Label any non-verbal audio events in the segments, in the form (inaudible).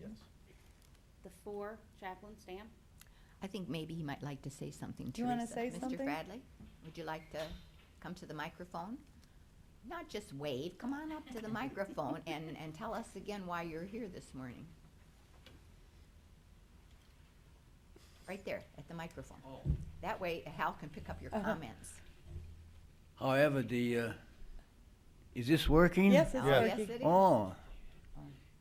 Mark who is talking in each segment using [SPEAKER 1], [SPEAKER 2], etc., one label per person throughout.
[SPEAKER 1] Yes.
[SPEAKER 2] The four, Chaplain Stamp?
[SPEAKER 3] I think maybe he might like to say something, Teresa.
[SPEAKER 4] You wanna say
[SPEAKER 3] Mr.
[SPEAKER 4] something?
[SPEAKER 3] Bradley, would you like to come to the microphone? Not just wave, come on up to the
[SPEAKER 4] (laughs)
[SPEAKER 3] microphone and, and tell us again why you're here this morning. Right there, at the microphone. That way Hal can pick up your
[SPEAKER 4] Uh-huh.
[SPEAKER 3] comments.
[SPEAKER 5] However, the uh, is this working?
[SPEAKER 4] Yes, it's
[SPEAKER 3] Oh,
[SPEAKER 1] Yeah.
[SPEAKER 3] yes,
[SPEAKER 4] working.
[SPEAKER 3] it is.
[SPEAKER 5] Oh,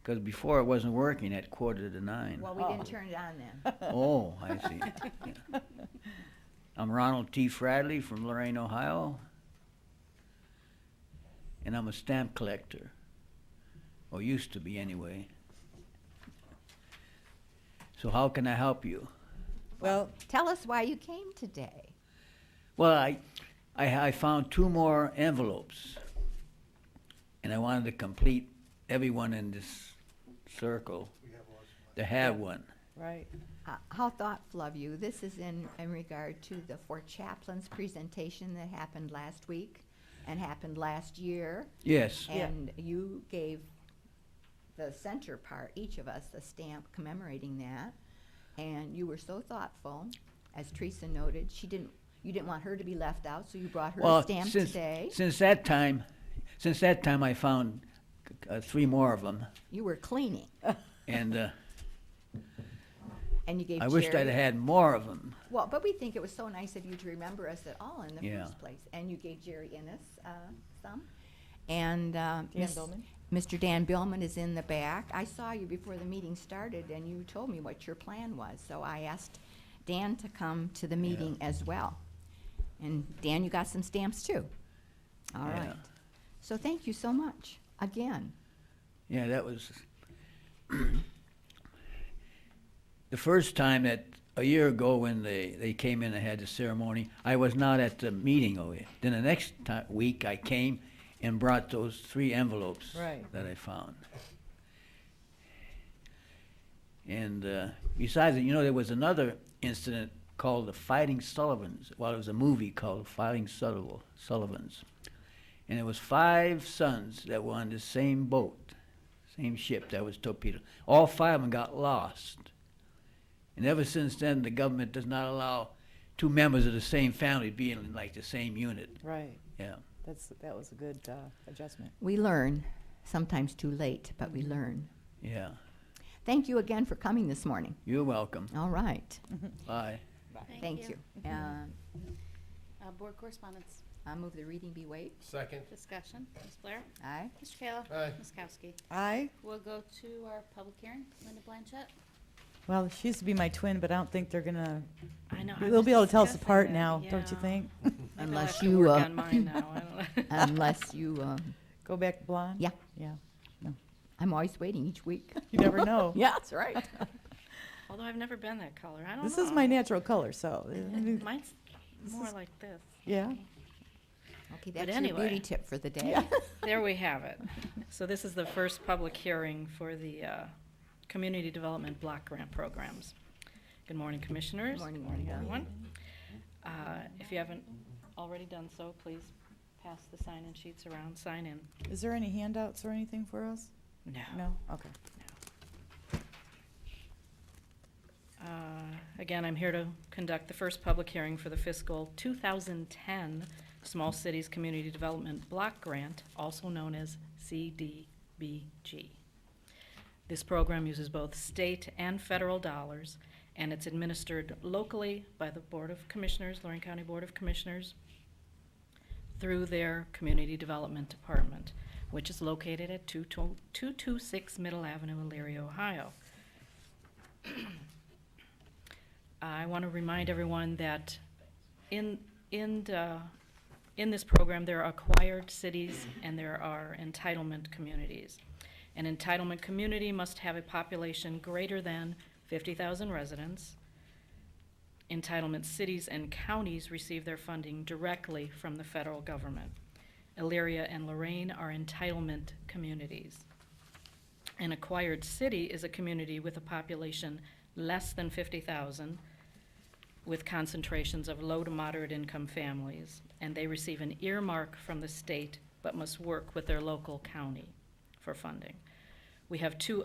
[SPEAKER 5] because before it wasn't working at quarter to nine.
[SPEAKER 3] Well, we
[SPEAKER 4] Oh.
[SPEAKER 3] didn't turn it on
[SPEAKER 4] (laughs)
[SPEAKER 3] then.
[SPEAKER 5] (laughs) Oh, I see. Yeah. I'm Ronald T. Fradley from Lorain, Ohio, and I'm a stamp collector, or used to be anyway. So how can I help you?
[SPEAKER 4] Well,
[SPEAKER 3] Tell us why you came today.
[SPEAKER 5] Well, I, I, I found two more envelopes, and I wanted to complete everyone in this circle to have one.
[SPEAKER 4] right.
[SPEAKER 3] Uh, How thoughtful of you. This is in, in regard to the four chaplains presentation that happened last week and happened last year.
[SPEAKER 5] Yes,
[SPEAKER 4] Yeah.
[SPEAKER 3] And you gave the center part, each of us, a stamp commemorating that. And you were so thoughtful, as Teresa noted, she didn't, you didn't want her to be left out, so you brought her a
[SPEAKER 5] well,
[SPEAKER 3] stamp
[SPEAKER 5] since,
[SPEAKER 3] today.
[SPEAKER 5] since that time, since that time, I found uh, three more of them,
[SPEAKER 3] You were cleaning,
[SPEAKER 5] and uh,
[SPEAKER 3] and you gave
[SPEAKER 5] I
[SPEAKER 3] Jerry.
[SPEAKER 5] wished I'd had more of them.
[SPEAKER 3] Well, but we think it was so nice of you to remember us at all in the
[SPEAKER 5] Yeah.
[SPEAKER 3] first place. And you gave Jerry Innes uh, some. And uh, Miss-
[SPEAKER 4] Billman?
[SPEAKER 3] Mr. Dan Billman is in the back. I saw you before the meeting started, and you told me what your plan was. So I asked Dan to come to the meeting as well. And Dan, you got some stamps too. All
[SPEAKER 5] Yeah.
[SPEAKER 3] right. So thank you so much again.
[SPEAKER 5] Yeah, that was (clears throat) the first time that a year ago when they, they came in and had the ceremony. I was not at the meeting over it. Then the next ti week I came and brought those three envelopes
[SPEAKER 4] Right.
[SPEAKER 5] that I found. And uh, besides it, you know, there was another incident called the Fighting Sullivans. Well, it was a movie called Fighting Sullivan, Sullivans. And it was five sons that were on the same boat, same ship that was torpedoed. All five of them got lost. And ever since then, the government does not allow two members of the same family to be in like the same unit.
[SPEAKER 4] Right.
[SPEAKER 5] Yeah.
[SPEAKER 4] That's, that was a good uh, adjustment.
[SPEAKER 3] We learn, sometimes too late, but we learn.
[SPEAKER 5] Yeah.
[SPEAKER 3] Thank you again for coming this morning.
[SPEAKER 5] You're welcome.
[SPEAKER 3] All right.
[SPEAKER 6] Mm-hmm.
[SPEAKER 5] Bye.
[SPEAKER 3] Thank you. Uh,
[SPEAKER 2] Uh, Board correspondence,
[SPEAKER 3] I move the reading be waived.
[SPEAKER 1] Second.
[SPEAKER 2] discussion, Ms. Blair,
[SPEAKER 3] Aye.
[SPEAKER 2] Mr. Kayla.
[SPEAKER 1] Aye.
[SPEAKER 2] Ms. Kowski.
[SPEAKER 4] I,
[SPEAKER 2] We'll go to our public hearing, Linda Blanchett.
[SPEAKER 4] well, she used to be my twin, but I don't think they're gonna,
[SPEAKER 6] I know. I
[SPEAKER 4] they'll
[SPEAKER 6] was
[SPEAKER 4] be able to tell us
[SPEAKER 6] discussing
[SPEAKER 4] apart
[SPEAKER 6] that,
[SPEAKER 4] now, don't you
[SPEAKER 6] yeah.
[SPEAKER 4] think? (laughs)
[SPEAKER 6] Maybe I'll
[SPEAKER 3] Unless
[SPEAKER 6] have to
[SPEAKER 3] you,
[SPEAKER 6] work
[SPEAKER 3] uh,
[SPEAKER 6] on mine now, I don't know. (laughs)
[SPEAKER 3] Unless you, uh,
[SPEAKER 4] Go back blonde?
[SPEAKER 3] Yeah.
[SPEAKER 4] Yeah.
[SPEAKER 3] I'm always waiting each week.
[SPEAKER 4] You never know.
[SPEAKER 3] (laughs) Yeah, that's
[SPEAKER 6] (laughs)
[SPEAKER 3] right.
[SPEAKER 6] Although I've never been that color. I don't
[SPEAKER 4] This is
[SPEAKER 6] know.
[SPEAKER 4] my natural color, so,
[SPEAKER 6] Mine's more like this.
[SPEAKER 4] yeah.
[SPEAKER 3] Okay, that's your
[SPEAKER 6] anyway.
[SPEAKER 3] beauty tip for the day. (laughs)
[SPEAKER 6] There we have it. So this is the first public hearing for the uh, Community Development Block Grant Programs. Good morning, Commissioners.
[SPEAKER 3] Morning,
[SPEAKER 6] everyone. Uh, If you haven't already done so, please pass the sign-in sheets around, sign in.
[SPEAKER 4] Is there any handouts or anything for us? No? Okay.
[SPEAKER 6] Uh, Again, I'm here to conduct the first public hearing for the fiscal 2010 Small Cities Community Development Block Grant, also known as CDBG. This program uses both state and federal dollars, and it's administered locally by the Board of Commissioners, Lorraine County Board of Commissioners, through their Community Development Department, which is located at 226 Middle Avenue, Elyria, Ohio. I want to remind everyone that in, in, the- in this program, there are acquired cities and there are entitlement communities. An entitlement community must have a population greater than 50,000 residents. Entitlement cities and counties receive their funding directly from the federal government. Elyria and Lorraine are entitlement communities. An acquired city is a community with a population less than 50,000 with concentrations of low to moderate income families, and they receive an earmark from the state but must work with their local county for funding. We have two